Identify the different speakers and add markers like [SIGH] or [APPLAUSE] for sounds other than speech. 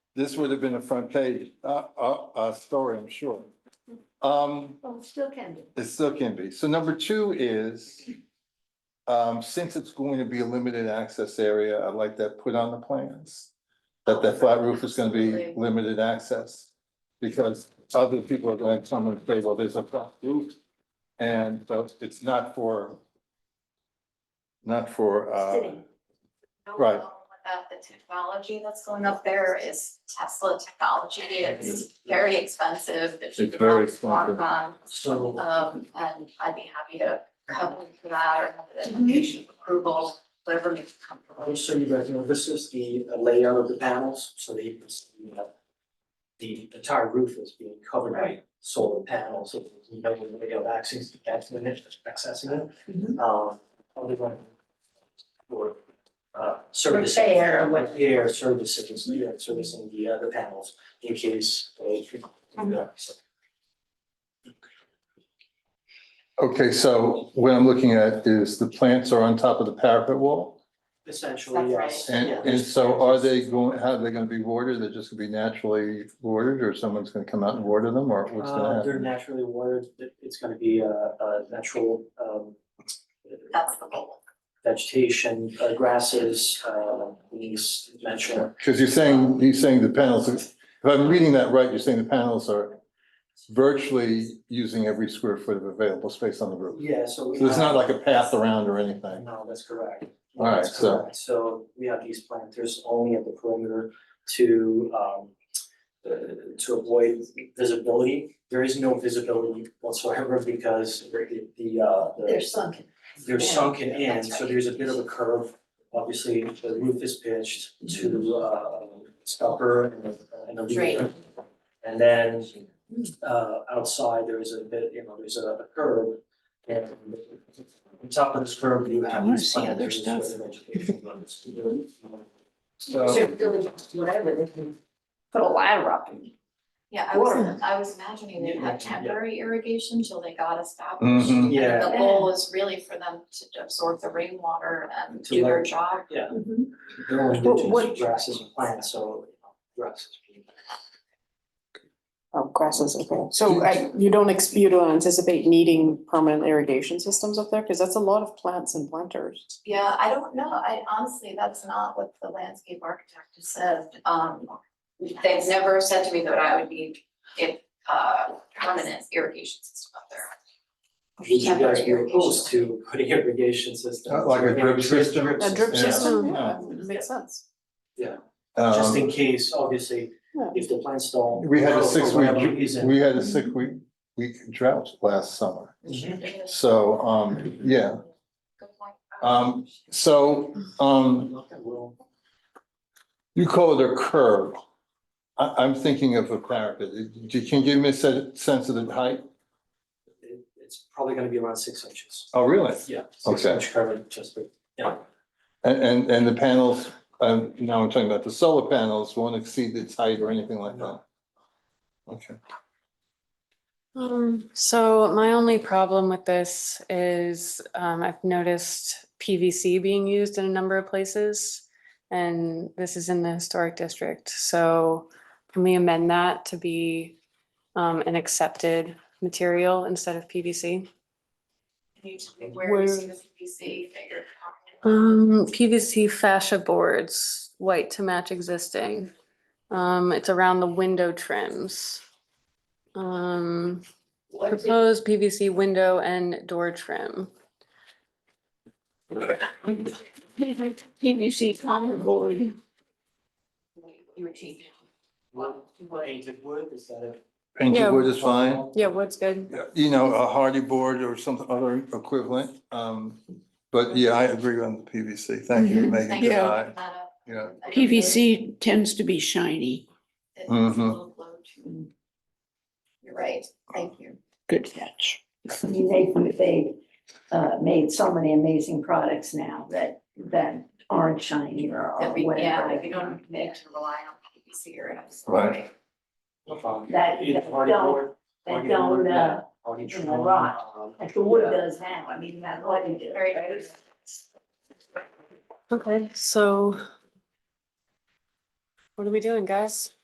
Speaker 1: This would have been a front page, uh, uh, uh, story, I'm sure. Um,
Speaker 2: Well, it still can be.
Speaker 1: it still can be. So number two is, um, since it's going to be a limited access area, I'd like that put on the plans. That that flat roof is gonna be
Speaker 2: Absolutely.
Speaker 1: limited access. Because other people are gonna come and say, well, there's a flat roof. And so it's not for, not for, uh,
Speaker 2: Sitting.
Speaker 1: Right.
Speaker 3: About the technology that's going up there is Tesla technology. It's very expensive. There's
Speaker 1: It's very
Speaker 3: lots of work on,
Speaker 4: So
Speaker 3: Um, and I'd be happy to come in for that or have the application approval, whatever makes you comfortable.
Speaker 4: I'll show you guys, you know, this is the layout of the panels, so they can see that the entire roof is being covered by solar panels, so you know, the way of access, accessing it, accessing it.
Speaker 2: Mhm.
Speaker 4: Um, other one for, uh, service.
Speaker 2: Repair or what-
Speaker 4: Repair services, yeah, servicing the other panels in case they.
Speaker 2: Mm-hmm.
Speaker 4: So
Speaker 1: okay, so what I'm looking at is the plants are on top of the parapet wall.
Speaker 4: Essentially, yes.
Speaker 3: That's
Speaker 1: And,
Speaker 4: yeah.
Speaker 1: and so are they going, how are they gonna be watered? They're just gonna be naturally watered or someone's gonna come out and water them or what's gonna
Speaker 4: Uh, they're
Speaker 1: happen?
Speaker 4: naturally watered, it- it's gonna be a, a natural, um,
Speaker 3: That's the goal.
Speaker 4: vegetation, uh, grasses, uh, leaves, mentioned.
Speaker 1: Cause you're saying, you're saying the panels, if I'm reading that right, you're saying the panels are virtually using every square foot of available space on the roof.
Speaker 4: Yeah, so we
Speaker 1: So it's not
Speaker 4: have-
Speaker 1: like a path around or anything.
Speaker 4: No, that's correct.
Speaker 1: All right,
Speaker 4: That's
Speaker 1: so-
Speaker 4: correct. So we have these planters only at the perimeter to, um, uh, to avoid visibility. There is no visibility whatsoever because the, the, uh, the-
Speaker 2: They're sunken.
Speaker 4: they're
Speaker 3: Yeah,
Speaker 4: sunken in,
Speaker 3: that's
Speaker 4: so
Speaker 3: right.
Speaker 4: there's a bit of a curve. Obviously, the roof is pitched to
Speaker 3: Mm-hmm.
Speaker 4: uh scupper and a- and a leader.
Speaker 3: Drain.
Speaker 4: And then uh outside, there is a bit, you know, there's a a curve. And on top of this curve, you have these planters with vegetation runs. So,
Speaker 2: Should really, whatever, they can put a ladder up and.
Speaker 3: Yeah, I was, I was imagining they'd have temporary irrigation till they got established.
Speaker 1: Mhm.
Speaker 3: And
Speaker 4: yeah,
Speaker 3: The goal is really for them to absorb the rainwater and
Speaker 4: To
Speaker 3: do their
Speaker 4: let-
Speaker 3: job
Speaker 2: Mm-hmm.
Speaker 4: they're only
Speaker 5: What- what-
Speaker 4: indigenous grasses and plants, so you know, grasses.
Speaker 5: Oh, grasses, okay. So I, you don't ex, you don't anticipate needing permanent irrigation systems up there? Cause that's a lot of plants and planters.
Speaker 3: Yeah, I don't know. I honestly, that's not what the landscape architect has said. Um, they've never said to me that I would need it, uh, permanent irrigation system up there.
Speaker 4: Would you guys be
Speaker 3: Temporary
Speaker 4: opposed to putting [LAUGHS] irrigation systems?
Speaker 1: Uh, Like a drip
Speaker 4: Drip
Speaker 1: system?
Speaker 4: drip
Speaker 5: A drip
Speaker 1: Yeah.
Speaker 5: system,
Speaker 1: Yeah.
Speaker 5: uh, makes sense.
Speaker 4: Just in
Speaker 1: Um,
Speaker 4: case, obviously, if the plants don't.
Speaker 1: we had
Speaker 4: grow
Speaker 1: a
Speaker 4: for
Speaker 1: six
Speaker 4: whatever
Speaker 1: week,
Speaker 4: reason.
Speaker 1: we had a six week, week drought last summer.
Speaker 3: Good
Speaker 1: Mm-hmm. So, um, yeah,
Speaker 3: point.
Speaker 1: Um, so, um,
Speaker 4: Well,
Speaker 1: You call it a curve. I, I'm thinking of a parapet. You Can you give me a se- sense of the height?
Speaker 4: it- It's probably gonna be around six inches.
Speaker 1: Oh, really?
Speaker 4: Yeah. Six
Speaker 1: Okay.
Speaker 4: inch coverage, just, for- yeah,
Speaker 1: And, and, and the panels, um, now I'm talking about the solar panels won't exceed its height or anything like that? Okay.
Speaker 6: Um, so my only problem with this is, um, I've noticed PVC being used in a number of places. And this is in the historic district, so can we amend that to be, um, an accepted material instead of PVC?
Speaker 3: Can you tell me where you see the
Speaker 6: Where-
Speaker 3: PVC that you're talking about?
Speaker 6: Um, PVC fascia boards, white to match existing. Um, it's around the window trims. Um,
Speaker 2: What's it-
Speaker 6: Proposed PVC window and door trim.
Speaker 2: PVC common board. You were cheating.
Speaker 4: What, what painted wood, is that a?
Speaker 6: Yeah.
Speaker 1: Painted wood is fine.
Speaker 6: Yeah, wood's good.
Speaker 1: You know, a hardy board or some other equivalent. Um, but yeah, I agree on the PVC. Thank you, Megan.
Speaker 3: Mm-hmm. Thank you for
Speaker 1: Yeah,
Speaker 3: bringing that up.
Speaker 1: Yeah.
Speaker 3: I think
Speaker 2: PVC tends to be shiny,
Speaker 3: it's- it's a
Speaker 1: Mhm.
Speaker 3: little low too. You're right, thank you.
Speaker 2: good catch. I mean, they, they, uh, made so many amazing products now that, that aren't shiny or or
Speaker 3: That we,
Speaker 2: whatever.
Speaker 3: yeah, we don't need to rely on PVC or else.
Speaker 1: Right.
Speaker 4: No problem.
Speaker 2: That-
Speaker 4: Either
Speaker 2: that
Speaker 4: hardy
Speaker 2: don't-
Speaker 4: board,
Speaker 2: that
Speaker 4: hardy
Speaker 2: don't,
Speaker 4: wood,
Speaker 2: uh,
Speaker 4: yeah, hardy
Speaker 2: you
Speaker 4: trim,
Speaker 2: know, rot.
Speaker 4: um,
Speaker 2: Like the wood does now, I mean, that's what you do.
Speaker 3: Very good.
Speaker 6: Okay, so. What are we doing, guys?